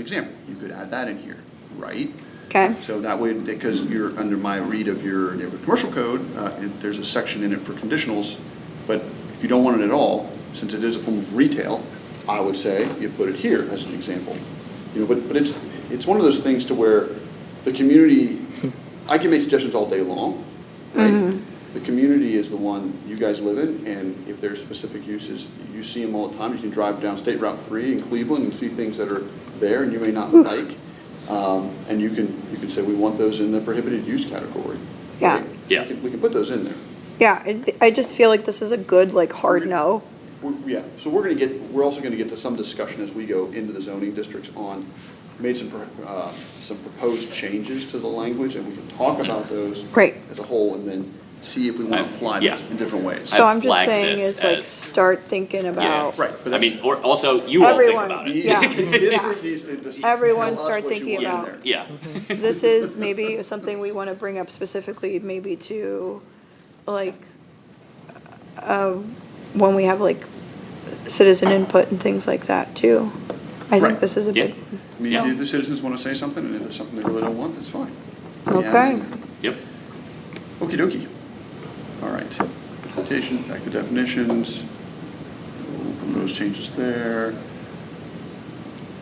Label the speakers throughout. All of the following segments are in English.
Speaker 1: example, you could add that in here, right?
Speaker 2: Okay,
Speaker 1: So that way, because you're under my read of your neighborhood commercial code, uh, it- there's a section in it for conditionals, but if you don't want it at all, since it is a form of retail, I would say you put it here as an example. You know, but, but it's, it's one of those things to where the community, I can make suggestions all day long, right? The community is the one you guys live in, and if there's specific uses, you see them all the time. You can drive down State Route three in Cleveland and see things that are there and you may not like. Um, and you can, you can say, we want those in the prohibited use category.
Speaker 2: Yeah.
Speaker 1: Right?
Speaker 3: Yeah.
Speaker 1: We can- We can put those in there.
Speaker 2: yeah, I- I just feel like this is a good, like, hard no.
Speaker 1: We're- Yeah, so we're gonna get, we're also gonna get to some discussion as we go into the zoning districts on, made some, pro- uh, some proposed changes to the language, and we can talk about those.
Speaker 2: Great.
Speaker 1: As a whole, and then see if we wanna
Speaker 3: I've-
Speaker 1: apply
Speaker 3: yeah.
Speaker 1: those in different ways.
Speaker 2: So
Speaker 3: I
Speaker 2: I'm just
Speaker 3: flagged
Speaker 2: saying
Speaker 3: this
Speaker 2: is like,
Speaker 3: as-
Speaker 2: start thinking about,
Speaker 1: Right, but
Speaker 3: I
Speaker 1: that's-
Speaker 3: mean, or also you all think
Speaker 2: Everyone.
Speaker 3: about
Speaker 1: The
Speaker 3: it.
Speaker 2: Yeah.
Speaker 1: district needs to just tell
Speaker 2: Everyone
Speaker 1: us
Speaker 2: start
Speaker 1: what you
Speaker 2: thinking
Speaker 1: want in
Speaker 2: about-
Speaker 1: there.
Speaker 3: Yeah.
Speaker 1: Mm-hmm.
Speaker 2: this is maybe something we want to bring up specifically, maybe to, like, uh, when we have, like, citizen input and things like that, too. I
Speaker 1: Right.
Speaker 2: think this is a
Speaker 3: Yeah.
Speaker 2: big,
Speaker 1: I mean,
Speaker 3: Yeah.
Speaker 1: if the citizens want to say something, and if there's something they really don't want, that's fine.
Speaker 2: Okay.
Speaker 3: Yep.
Speaker 1: Okey dokey. All right. Interpretation, back to definitions. Open those changes there.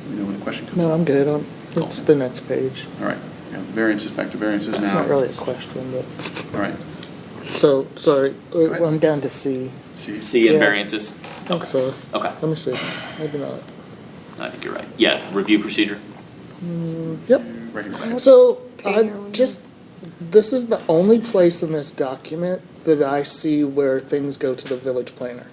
Speaker 1: Let me know when the question comes.
Speaker 4: No,
Speaker 1: up.
Speaker 4: I'm good. I'm, it's the next page.
Speaker 1: All right. Yeah, variances, back to variances now.
Speaker 4: It's not really a question, but,
Speaker 1: All right.
Speaker 4: so, sorry,
Speaker 1: ahead.
Speaker 4: uh, I'm down to C.
Speaker 1: See.
Speaker 3: C and
Speaker 4: Yeah.
Speaker 3: variances.
Speaker 4: I think so.
Speaker 3: Okay.
Speaker 4: Let me see, maybe not.
Speaker 3: I think you're right. Yeah. Review procedure.
Speaker 4: Yep.
Speaker 1: Right here.
Speaker 4: So,
Speaker 2: Okay,
Speaker 4: I
Speaker 2: here we
Speaker 4: just, this is the only place in this document that I see where things go to the village planner.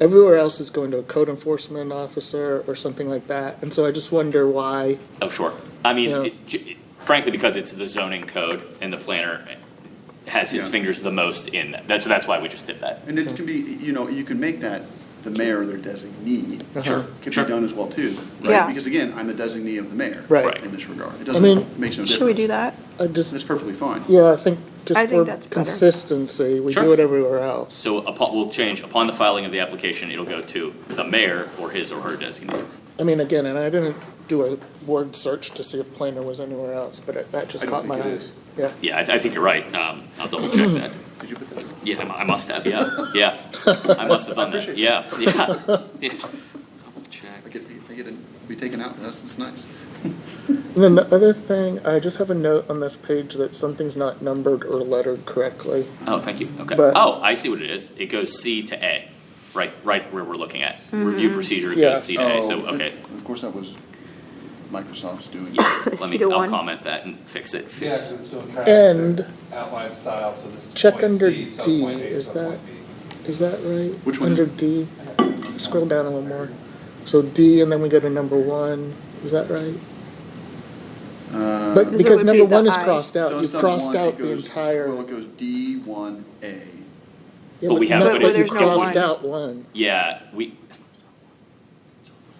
Speaker 4: Everywhere else is going to a code enforcement officer or something like that, and so I just wonder why,
Speaker 3: Oh, sure. I mean,
Speaker 4: Yeah.
Speaker 3: it- j- it- frankly, because it's the zoning code and the planner has his
Speaker 1: Yeah.
Speaker 3: fingers the most in that. That's that's why we just did that.
Speaker 1: And it can be, you know, you can make that the mayor or their designee.
Speaker 4: Sure,
Speaker 1: Can be
Speaker 3: sure.
Speaker 1: done as well too, right?
Speaker 2: Yeah.
Speaker 1: Because again, I'm the designee of the mayor.
Speaker 4: Right. Right.
Speaker 1: In this regard. It
Speaker 4: mean-
Speaker 1: doesn't, makes no difference.
Speaker 2: should we do that?
Speaker 4: I
Speaker 1: That's
Speaker 4: just,
Speaker 1: perfectly fine.
Speaker 4: yeah, I think
Speaker 2: I
Speaker 4: just
Speaker 2: think
Speaker 4: for
Speaker 2: that's better.
Speaker 4: consistency, we
Speaker 3: Sure.
Speaker 4: do it everywhere else.
Speaker 3: So upon, we'll change upon the filing of the application, it'll go to the mayor or his or her designee.
Speaker 4: I mean, again, and I didn't do a word search to see if planer was anywhere else, but it- that
Speaker 1: I
Speaker 4: just
Speaker 1: don't
Speaker 4: caught my
Speaker 1: think it
Speaker 4: eye.
Speaker 1: is.
Speaker 4: Yeah,
Speaker 3: Yeah, I, I think you're right. Um, I'll double check that.
Speaker 1: Did you put that? in?
Speaker 3: Yeah, I mu- I must have. Yeah, yeah. I must have done that. Yeah, yeah. yeah. Double check.
Speaker 1: I get, I get to be taken out, that's, that's nice.
Speaker 4: and then the other thing, I just have a note on this page that something's not numbered or lettered correctly.
Speaker 3: Oh, thank you, okay.
Speaker 4: But-
Speaker 3: Oh, I see what it is. It goes C to A, right, right where we're looking at.
Speaker 2: Mm-hmm.
Speaker 3: Review procedure, it
Speaker 4: Yeah.
Speaker 3: goes C to A, so,
Speaker 1: Oh, that-
Speaker 3: okay.
Speaker 1: Of course, that was Microsoft's doing.
Speaker 3: Yeah,
Speaker 2: C
Speaker 3: Let me,
Speaker 2: to
Speaker 3: I'll
Speaker 2: one.
Speaker 3: comment that and fix it,
Speaker 5: Yeah, 'cause
Speaker 3: fix.
Speaker 5: it's still trying
Speaker 4: And-
Speaker 5: to outline style, so this is
Speaker 4: Check
Speaker 5: point
Speaker 4: under
Speaker 5: C, so point
Speaker 4: D,
Speaker 5: A,
Speaker 4: is
Speaker 5: so
Speaker 4: that-
Speaker 5: point B.
Speaker 4: Is that right?
Speaker 1: Which one is-
Speaker 4: Under D, scroll down a little more. So D, and then we go to number one, is that right?
Speaker 1: Uh,
Speaker 4: But
Speaker 2: it
Speaker 4: because
Speaker 2: would
Speaker 4: number
Speaker 2: be the
Speaker 4: one is
Speaker 2: eyes.
Speaker 4: crossed out,
Speaker 1: does
Speaker 4: you've
Speaker 1: that
Speaker 4: crossed
Speaker 1: one, it
Speaker 4: out the
Speaker 1: goes-
Speaker 4: entire.
Speaker 1: Well, it goes D one A.
Speaker 4: yeah,
Speaker 3: But we have-
Speaker 4: no,
Speaker 3: But
Speaker 4: But you
Speaker 2: there's no
Speaker 4: crossed
Speaker 2: one.
Speaker 4: out one.
Speaker 3: Yeah, we,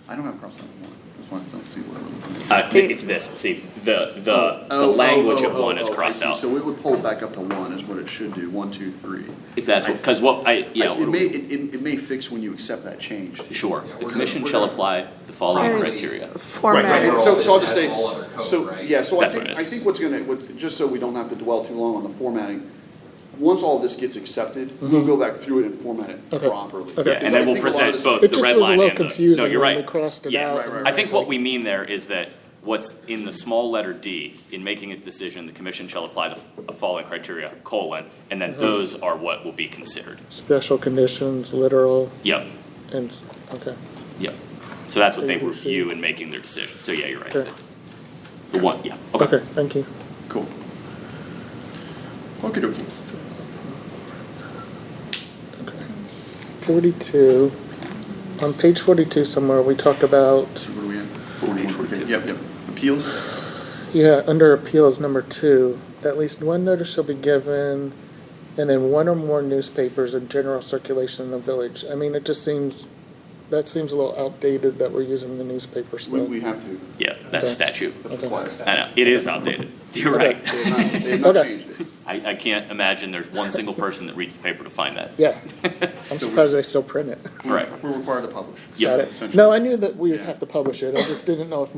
Speaker 1: I don't have crossed out one, that's why I don't see what we're looking at.
Speaker 3: uh, it- it's this, see, the, Uh, the, the
Speaker 1: Oh, oh,
Speaker 3: language of
Speaker 1: oh,
Speaker 3: one
Speaker 1: oh,
Speaker 3: is
Speaker 1: oh, I
Speaker 3: crossed
Speaker 1: see.
Speaker 3: out.
Speaker 1: So it would pull back up to one is what it should do, one, two, three.
Speaker 3: If that's,
Speaker 1: I-
Speaker 3: what cause what, I, yeah,
Speaker 1: I-
Speaker 3: what
Speaker 1: It
Speaker 3: do
Speaker 1: may,
Speaker 3: we-
Speaker 1: it, it- it may fix when you accept that change. too.
Speaker 3: sure.
Speaker 5: Yeah,
Speaker 3: The
Speaker 5: we're
Speaker 3: commission
Speaker 5: gonna-
Speaker 3: shall
Speaker 5: we're gonna-
Speaker 3: apply the following
Speaker 2: Right.
Speaker 3: criteria.
Speaker 1: Right, right,
Speaker 2: Format,
Speaker 1: and so, so I'll just say,
Speaker 5: That's all under code,
Speaker 1: so,
Speaker 5: right?
Speaker 1: yeah, so I
Speaker 3: That's
Speaker 1: think,
Speaker 3: what it
Speaker 1: I
Speaker 3: is.
Speaker 1: think what's gonna, what, just so we don't have to dwell too long on the formatting, once all this gets accepted, we'll go back through it and format it
Speaker 4: Mm-hmm. Okay.
Speaker 1: properly.
Speaker 4: Okay.
Speaker 3: Yeah,
Speaker 4: Because
Speaker 3: and
Speaker 1: I think
Speaker 3: then we'll
Speaker 1: a lot of
Speaker 3: present
Speaker 1: this-
Speaker 3: both
Speaker 4: It
Speaker 3: the
Speaker 4: just
Speaker 3: red
Speaker 4: was a
Speaker 3: line
Speaker 4: little
Speaker 3: and the,
Speaker 4: confusing
Speaker 3: no, you're
Speaker 4: when we
Speaker 3: right.
Speaker 4: crossed it
Speaker 3: Yeah.
Speaker 4: out
Speaker 1: Right, right,
Speaker 4: and
Speaker 3: I
Speaker 4: it
Speaker 3: think
Speaker 4: was
Speaker 3: what
Speaker 4: like-
Speaker 3: we mean there is that what's in the small letter D, in making his decision, the commission shall apply the f- following criteria, colon, and then those are what will be considered.
Speaker 4: Special conditions, literal,
Speaker 3: Yep,
Speaker 4: and, okay.
Speaker 3: yep. So that's what they
Speaker 4: A, B, C.
Speaker 3: review in making their decision. So yeah, you're right.
Speaker 4: Okay.
Speaker 3: The one, yeah, okay.
Speaker 4: Okay, thank you.
Speaker 1: Cool. Okey dokey.
Speaker 4: Forty-two, on page forty-two somewhere, we talk about,
Speaker 1: So what are we at? Forty-one, forty-two.
Speaker 3: 42.
Speaker 1: Yep, yep. Appeals?
Speaker 4: yeah, under appeals, number two, at least one notice shall be given, and then one or more newspapers in general circulation in the village. I mean, it just seems, that seems a little outdated that we're using the newspaper
Speaker 1: We,
Speaker 4: still.
Speaker 1: we have to.
Speaker 3: Yeah, that's
Speaker 4: Okay.
Speaker 3: statute.
Speaker 1: That's required.
Speaker 3: I know, it is outdated. You're
Speaker 4: Okay.
Speaker 3: right.
Speaker 1: They have not, they have not
Speaker 4: Okay.
Speaker 1: changed it.
Speaker 3: I, I can't imagine there's one single person that reads the paper to find that.
Speaker 4: Yeah, I'm surprised they still print it.
Speaker 3: Right.
Speaker 1: We're required to publish.
Speaker 3: Yep.
Speaker 4: Got
Speaker 1: essentially.
Speaker 4: it. No, I knew that we would
Speaker 1: Yeah.
Speaker 4: have to publish it, I just didn't know if